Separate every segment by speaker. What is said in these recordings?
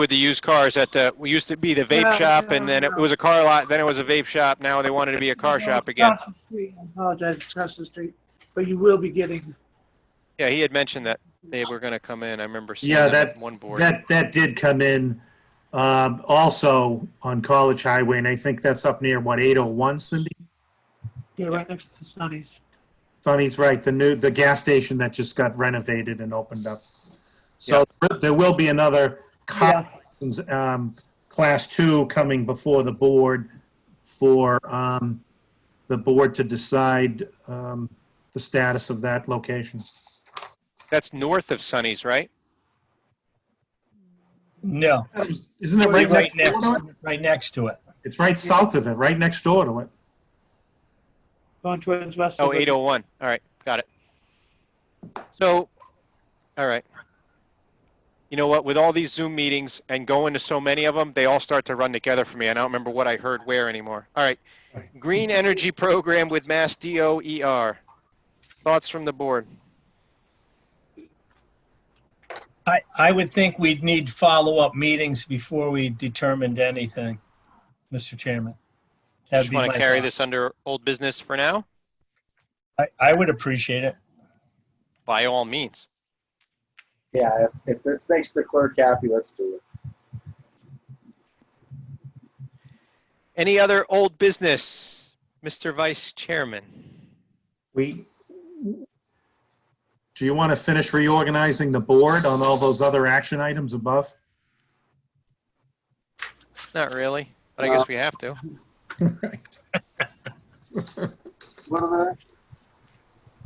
Speaker 1: with the used cars at the, we used to be the vape
Speaker 2: No,
Speaker 1: shop
Speaker 2: no,
Speaker 1: and then it
Speaker 2: no.
Speaker 1: was a car lot, then it was a vape shop, now they wanted to be a car shop again.
Speaker 2: Across the street, I apologize, it's across the street, but you will be getting,
Speaker 1: Yeah, he had mentioned that they were gonna come in, I remember seeing
Speaker 3: Yeah,
Speaker 1: that
Speaker 3: that-
Speaker 1: on one board.
Speaker 3: That, that did come in um, also on College Highway, and I think that's up near, what, 801, Cindy?
Speaker 2: yeah, right next to Sunny's.
Speaker 3: Sonny's right, the new, the gas station that just got renovated and opened up. So there will be another
Speaker 2: Yeah,
Speaker 3: car, um, Class 2 coming before the board for um, the board to decide um, the status of that location.
Speaker 1: That's north of Sunny's, right?
Speaker 4: No,
Speaker 3: Isn't it right
Speaker 4: right
Speaker 3: next
Speaker 4: next,
Speaker 3: door to it?
Speaker 4: right next to it.
Speaker 3: It's right south of it, right next door to it.
Speaker 2: going towards West.
Speaker 1: Oh, 801, all right, got it. So, all right. You know what, with all these Zoom meetings and going to so many of them, they all start to run together for me. I don't remember what I heard where anymore. All right. Green Energy Program with Mass DOER. Thoughts from the board?
Speaker 4: I, I would think we'd need follow-up meetings before we determined anything, Mr. Chairman. That'd
Speaker 1: Just
Speaker 4: be
Speaker 1: want
Speaker 4: my
Speaker 1: to carry
Speaker 4: thought.
Speaker 1: this under old business for now?
Speaker 4: I, I would appreciate it.
Speaker 1: By all means.
Speaker 5: Yeah, if, if this makes the clerk happy, let's do it.
Speaker 1: Any other old business, Mr. Vice Chairman?
Speaker 3: We, do you want to finish reorganizing the board on all those other action items above?
Speaker 1: Not really, but I guess we have to.
Speaker 5: What are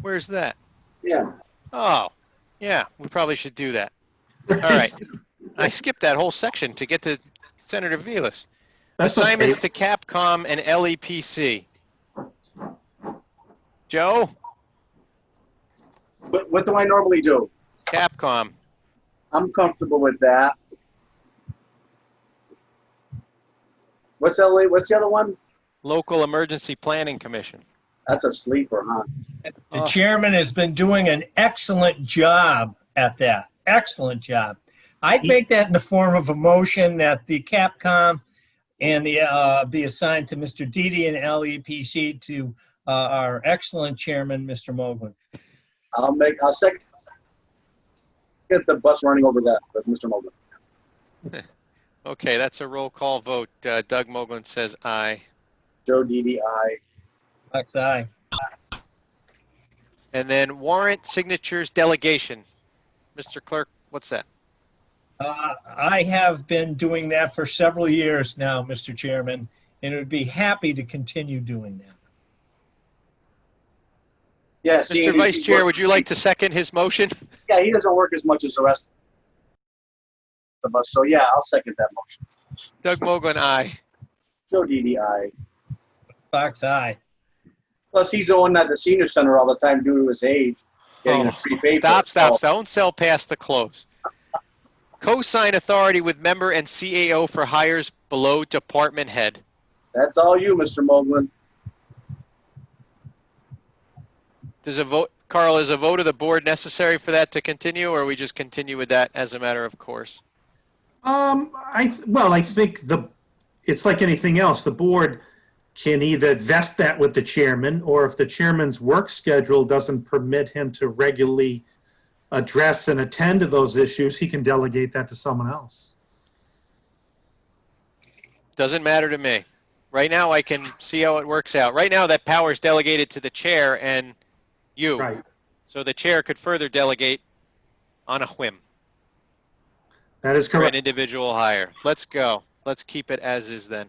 Speaker 1: Where's that?
Speaker 5: the, yeah.
Speaker 1: Oh, yeah, we probably should do that. All right. I skipped that whole section to get to Senator Velas.
Speaker 3: That's okay.
Speaker 1: Assignments to Capcom and E LEPC. Joe,
Speaker 5: What, what do I normally do?
Speaker 1: Capcom.
Speaker 5: I'm comfortable with that. What's LA, what's the other one?
Speaker 1: Local Emergency Planning Commission.
Speaker 5: That's a sleeper, huh?
Speaker 4: The
Speaker 1: Oh.
Speaker 4: chairman has been doing an excellent job at that. Excellent job. I'd make that in the form of a motion that the Capcom and the, uh, be assigned to Mr. Didi and LEPC to, uh, our excellent chairman, Mr. Mogul.
Speaker 5: I'll make, I'll second. Get the bus running over that, that's Mr. Mogul.
Speaker 1: Okay, that's a roll call vote. Uh, Doug Moglen says aye.
Speaker 5: Joe DDI.
Speaker 4: Buck's eye.
Speaker 1: And then warrant signatures delegation. Mr. Clerk, what's that?
Speaker 4: Uh, I have been doing that for several years now, Mr. Chairman, and would be happy to continue doing that.
Speaker 5: Yes. he-
Speaker 1: Mr.
Speaker 5: he-
Speaker 1: Vice
Speaker 5: he
Speaker 1: Chair,
Speaker 5: works-
Speaker 1: would you like to second his motion?
Speaker 5: Yeah, he doesn't work as much as the rest of us, so yeah, I'll second that motion.
Speaker 1: Doug Moglen, aye.
Speaker 5: Joe DDI.
Speaker 4: Fox eye.
Speaker 5: Plus, he's the one at the senior center all the time due to his age. Getting a
Speaker 1: Oh,
Speaker 5: free paper.
Speaker 1: Stop, stop,
Speaker 5: So,
Speaker 1: stop. Don't sell past the close. Co-sign authority with member and CAO for hires below department head.
Speaker 5: That's all you, Mr. Moglen.
Speaker 1: Does a vote, Carl, is a vote of the board necessary for that to continue, or we just continue with that as a matter of course?
Speaker 3: Um, I, well, I think the, it's like anything else, the board can either vest that with the chairman, or if the chairman's work schedule doesn't permit him to regularly address and attend to those issues, he can delegate that to someone else.
Speaker 1: Doesn't matter to me. Right now, I can see how it works out. Right now, that power is delegated to the chair and you.
Speaker 3: Right,
Speaker 1: So the chair could further delegate on a whim
Speaker 3: that is
Speaker 1: for an
Speaker 3: correct.
Speaker 1: individual hire. Let's go. Let's keep it as is then.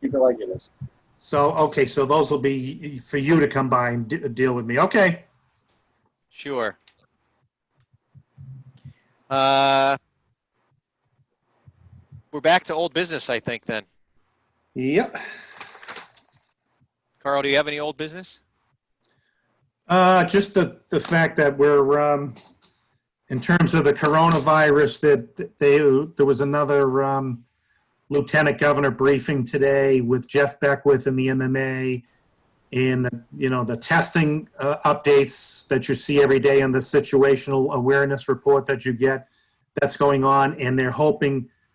Speaker 5: Keep it like it is.
Speaker 3: So, okay, so those will be for you to come by and de- deal with me. Okay,
Speaker 1: Sure. Uh, we're back to old business, I think, then.
Speaker 3: yep.
Speaker 1: Carl, do you have any old business?
Speaker 3: Uh, just the, the fact that we're, um, in terms of the coronavirus, that that they, there was another, um, Lieutenant Governor briefing today with Jeff Beckwith and the MMA and, the you know, the testing, uh, updates that you see every day and the situational awareness report that you get that's going on. And they're hoping